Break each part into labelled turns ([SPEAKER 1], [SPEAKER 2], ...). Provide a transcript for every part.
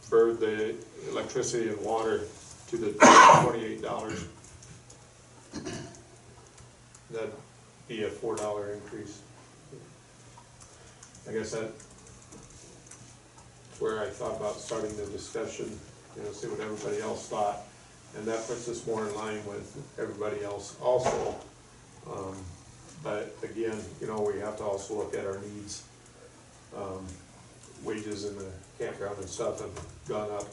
[SPEAKER 1] deferred the electricity and water to the twenty-eight dollars. That'd be a four dollar increase. I guess that, where I thought about starting the discussion, you know, see what everybody else thought. And that puts us more in line with everybody else also. Um, But again, you know, we have to also look at our needs. Um, Wages in the campground and stuff have gone up.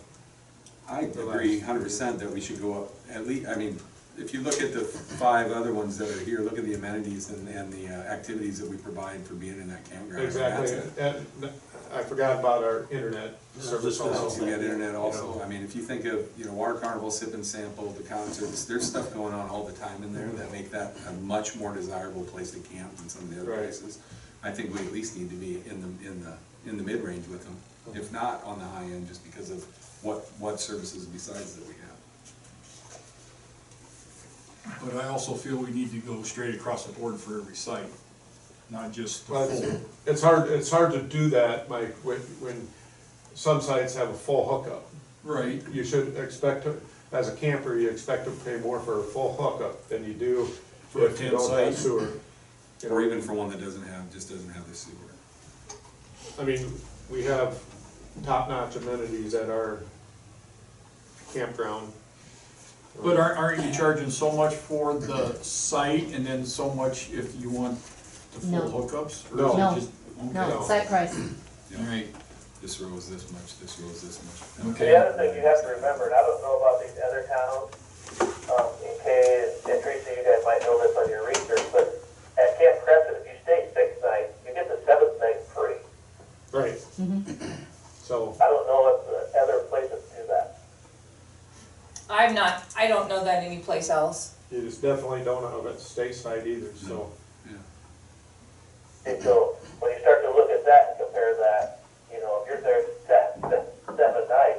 [SPEAKER 2] I agree hundred percent that we should go up, at least, I mean, if you look at the five other ones that are here, look at the amenities and, and the uh, activities that we provide for being in that campground.
[SPEAKER 1] Exactly,
[SPEAKER 2] That's it.
[SPEAKER 1] and I forgot about our internet service
[SPEAKER 2] So
[SPEAKER 1] also.
[SPEAKER 2] we got internet
[SPEAKER 1] You
[SPEAKER 2] also,
[SPEAKER 1] know.
[SPEAKER 2] I mean, if you think of, you know, water carnival, sip and sample, the concerts, there's stuff going on all the time in there that make that a much more desirable place to camp than some of the other
[SPEAKER 1] Right.
[SPEAKER 2] places. I think we at least need to be in the, in the, in the mid-range with them, if not on the high end, just because of what, what services besides that we have.
[SPEAKER 3] But I also feel we need to go straight across the board for every site, not just the
[SPEAKER 1] But
[SPEAKER 3] full.
[SPEAKER 1] it's hard, it's hard to do that, Mike, when, when some sites have a full hookup.
[SPEAKER 3] Right.
[SPEAKER 1] You should expect, to- as a camper, you expect to pay more for a full hookup than you do
[SPEAKER 3] For a
[SPEAKER 1] if you
[SPEAKER 3] tent
[SPEAKER 1] don't have
[SPEAKER 3] site.
[SPEAKER 1] sewer. You know,
[SPEAKER 2] Or even for one that doesn't have, just doesn't have the sewer.
[SPEAKER 1] I mean, we have top-notch amenities at our campground.
[SPEAKER 3] But aren't, aren't you charging so much for the site and then so much if you want the
[SPEAKER 4] No.
[SPEAKER 3] full hookups? Or is it
[SPEAKER 1] No.
[SPEAKER 4] No.
[SPEAKER 3] just-
[SPEAKER 1] No.
[SPEAKER 4] No, site price.
[SPEAKER 2] Yeah.
[SPEAKER 3] Alright,
[SPEAKER 2] This row is this much, this row is this much.
[SPEAKER 3] Okay.
[SPEAKER 5] The other thing you have to remember, and I don't know about these other towns, um, in case, and Teresa, you guys might know this on your research, but at Camp Crescent, if you stay six nights, you get the seventh night free.
[SPEAKER 1] Right. So,
[SPEAKER 5] I don't know if the other places do that.
[SPEAKER 6] I'm not, I don't know that anyplace else.
[SPEAKER 1] you just definitely don't have it stateside either, so.
[SPEAKER 2] Yeah.
[SPEAKER 5] And so, when you start to look at that and compare that, you know, if you're there that, that seventh night,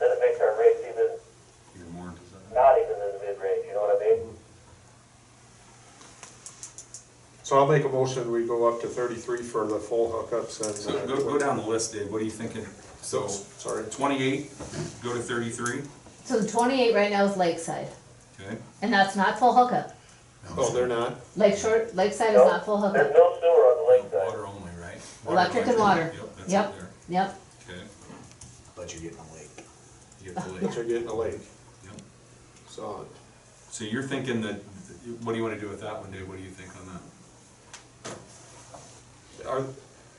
[SPEAKER 5] then it makes our rates even,
[SPEAKER 2] Even more desirable.
[SPEAKER 5] not even in the mid-range, you know what I mean?
[SPEAKER 1] So I'll make a motion, we go up to thirty-three for the full hookups and. uh,
[SPEAKER 2] So go, go down the list, Dave, what are you thinking? So
[SPEAKER 1] Sorry,
[SPEAKER 2] twenty-eight, go to thirty-three,
[SPEAKER 4] So the twenty-eight right now is Lakeside,
[SPEAKER 2] okay?
[SPEAKER 4] and that's not full hookup.
[SPEAKER 1] oh, they're not,
[SPEAKER 4] Lake Shore, Lakeside is not full
[SPEAKER 5] There's
[SPEAKER 4] hookup.
[SPEAKER 5] no sewer on the lakeside.
[SPEAKER 2] Water only, right?
[SPEAKER 4] Electric and water.
[SPEAKER 2] Yep, that's
[SPEAKER 4] Yep,
[SPEAKER 2] up there,
[SPEAKER 4] yep.
[SPEAKER 2] okay.
[SPEAKER 7] But you're getting late.
[SPEAKER 2] You get the
[SPEAKER 1] but
[SPEAKER 2] lake,
[SPEAKER 1] you're getting a lake,
[SPEAKER 2] yep.
[SPEAKER 1] so.
[SPEAKER 2] So you're thinking that, what do you wanna do with that one, Dave, what do you think on that?
[SPEAKER 1] Are,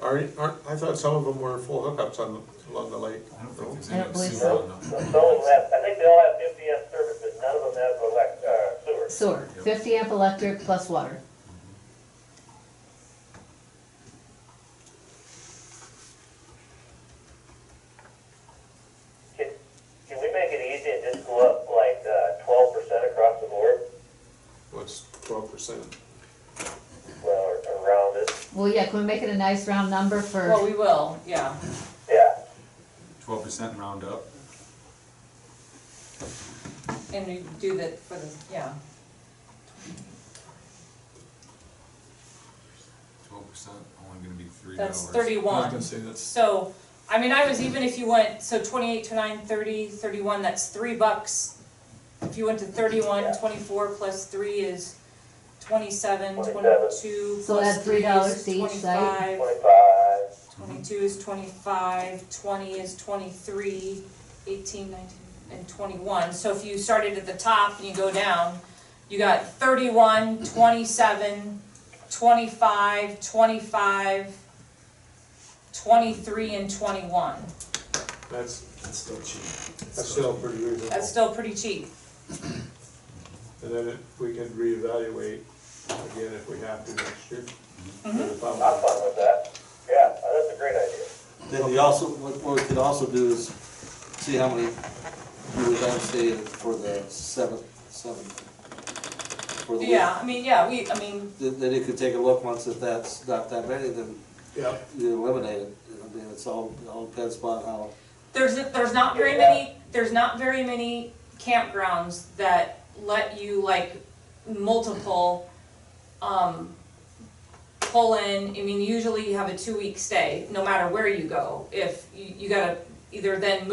[SPEAKER 1] are, aren't, I thought some of them were full hookups on, along the lake.
[SPEAKER 2] I don't think there's
[SPEAKER 4] I don't
[SPEAKER 2] any
[SPEAKER 4] believe
[SPEAKER 2] sewer
[SPEAKER 4] so.
[SPEAKER 2] on
[SPEAKER 5] The
[SPEAKER 2] that.
[SPEAKER 5] only left, I think they all have MDS service, but none of them have elect, uh, sewer.
[SPEAKER 4] Sewer,
[SPEAKER 2] Yep.
[SPEAKER 4] fifty amp electric plus water.
[SPEAKER 5] Can, can we make it easy and just go up like uh, twelve percent across the board?
[SPEAKER 1] What's twelve percent?
[SPEAKER 5] Well, or or round it,
[SPEAKER 4] Well, yeah, can we make it a nice round number
[SPEAKER 6] Well,
[SPEAKER 4] for,
[SPEAKER 6] we will, yeah.
[SPEAKER 5] yeah.
[SPEAKER 2] Twelve percent round up,
[SPEAKER 6] And we do that for the, yeah.
[SPEAKER 2] twelve percent, only gonna be three dollars.
[SPEAKER 6] That's
[SPEAKER 3] I was gonna
[SPEAKER 6] thirty-one.
[SPEAKER 3] say that's,
[SPEAKER 6] So, I mean, I was, even if you went, so twenty-eight, twenty-nine, thirty, thirty-one, that's three bucks. If you went to thirty-one, twenty-four plus three is twenty-seven, twenty-two
[SPEAKER 4] So
[SPEAKER 6] plus
[SPEAKER 4] add
[SPEAKER 6] three
[SPEAKER 4] $3
[SPEAKER 6] is
[SPEAKER 4] to each site.
[SPEAKER 6] twenty-five.
[SPEAKER 5] Twenty-five,
[SPEAKER 6] Twenty-two is twenty-five, twenty is twenty-three, eighteen, nineteen, and twenty-one. So if you started at the top and you go down, you got thirty-one, twenty-seven, twenty-five, twenty-five, twenty-three, and twenty-one.
[SPEAKER 1] That's,
[SPEAKER 7] That's still cheap.
[SPEAKER 1] that's still pretty reasonable.
[SPEAKER 6] That's still pretty cheap.
[SPEAKER 1] And then if we can reevaluate again if we have to next year. um,
[SPEAKER 5] I'm fine with that, yeah, that's a great idea.
[SPEAKER 8] Then we also, what what we could also do is see how many we would then stay for the seventh, seventh. for the week.
[SPEAKER 6] Yeah, I mean, yeah, we, I mean,
[SPEAKER 8] Then then you could take a look, once if that's not that many, then
[SPEAKER 1] Yeah,
[SPEAKER 8] you eliminate it. I mean, it's all, it all depends upon how,
[SPEAKER 6] there's, there's not very many, there's not very many campgrounds that let you like multiple, um, pull in, I mean, usually you have a two-week stay, no matter where you go. If you, you gotta either then